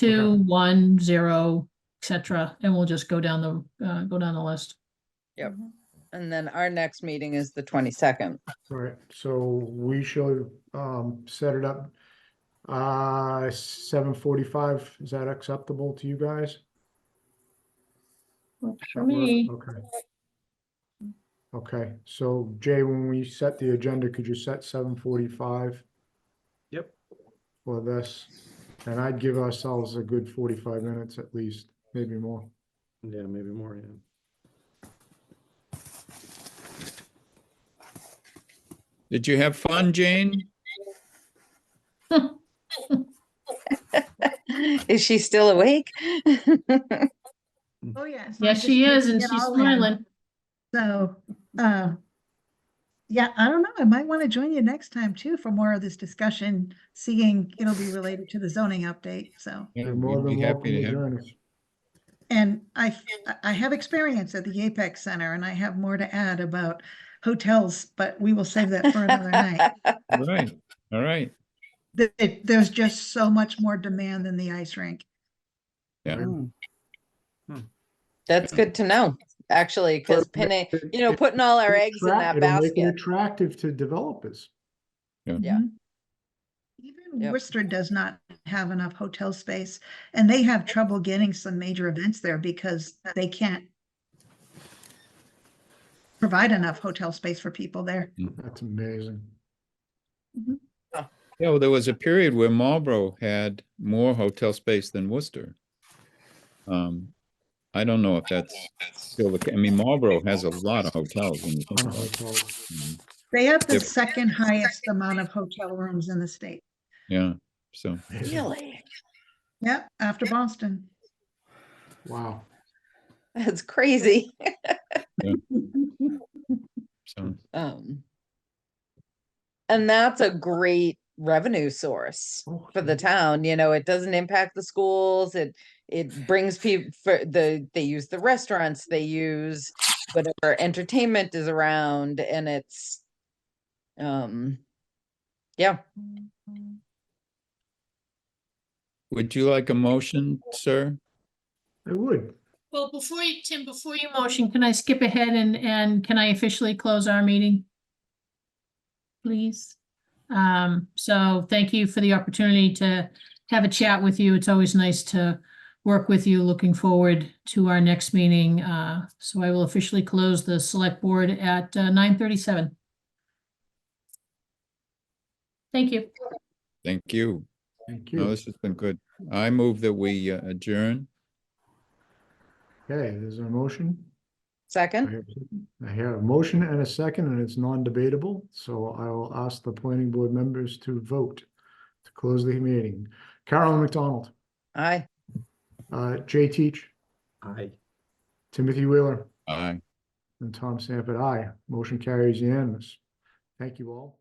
two, one, zero, et cetera, and we'll just go down the, uh, go down the list. Yep. And then our next meeting is the twenty-second. All right, so we shall um set it up. Uh, seven forty-five, is that acceptable to you guys? Works For That work? me, Okay. Okay, so Jay, when we set the agenda, could you set seven forty-five Yep, for this? And I'd give ourselves a good forty-five minutes at least, maybe more. yeah, maybe more, yeah. Did you have fun, Jane? Is she still awake? Oh, yes. I yes, just she couldn't is, and get she's all in. smiling. So, uh, yeah, I don't know. I might want to join you next time too for more of this discussion, seeing it'll be related to the zoning update. So, Yeah, You're more we'd than be welcome happy to to have- join us. and I, I- I have experience at the Apex Center and I have more to add about hotels, but we will save that for another night. Right, all right. Th- it- There's just so much more demand than the ice rink. That's good to know, actually, because pinning, you know, putting all our eggs in that It'll make it basket. Attractive to developers. Yeah. Mhm. Even Yep. Worcester does not have enough hotel space and they have trouble getting some major events there because they can't provide enough hotel space for people there. That's amazing. Yeah, well, there was a period where Marlborough had more hotel space than Worcester. Um, I don't know if that's still the, ca- I mean, Marlborough has a lot of hotels when you think On a about it. hotel. Mm, They have the Yep. second highest amount of hotel rooms in the state. Yeah, so, Really? Yep, after Boston. Wow. That's crazy. so, Um. And that's a great revenue source. Oh, for the town, you know, it doesn't impact the schools, it, it brings people, for the, they use the restaurants, they use whatever entertainment is around, and it's, um, yeah, would you like a motion, sir? It would. Well, before you, Tim, before you motion, can I skip ahead and, and can I officially close our meeting? Please? Um, so thank you for the opportunity to have a chat with you. It's always nice to work with you. Looking forward to our next meeting. Uh, so I will officially close the select board at uh, nine thirty-seven. Thank you. Thank you. Thank No, you. this has been good. I move that we uh, adjourn. Okay, there's a motion. I second, have- I hear a motion and a second, and it's non-debatable, so I will ask the planning board members to vote to close the meeting. Carolyn McDonald, aye. uh, Jay Teach, Aye. Timothy Wheeler, Aye. and Tom Sanford, aye. Motion carries unanimous. Thank you all.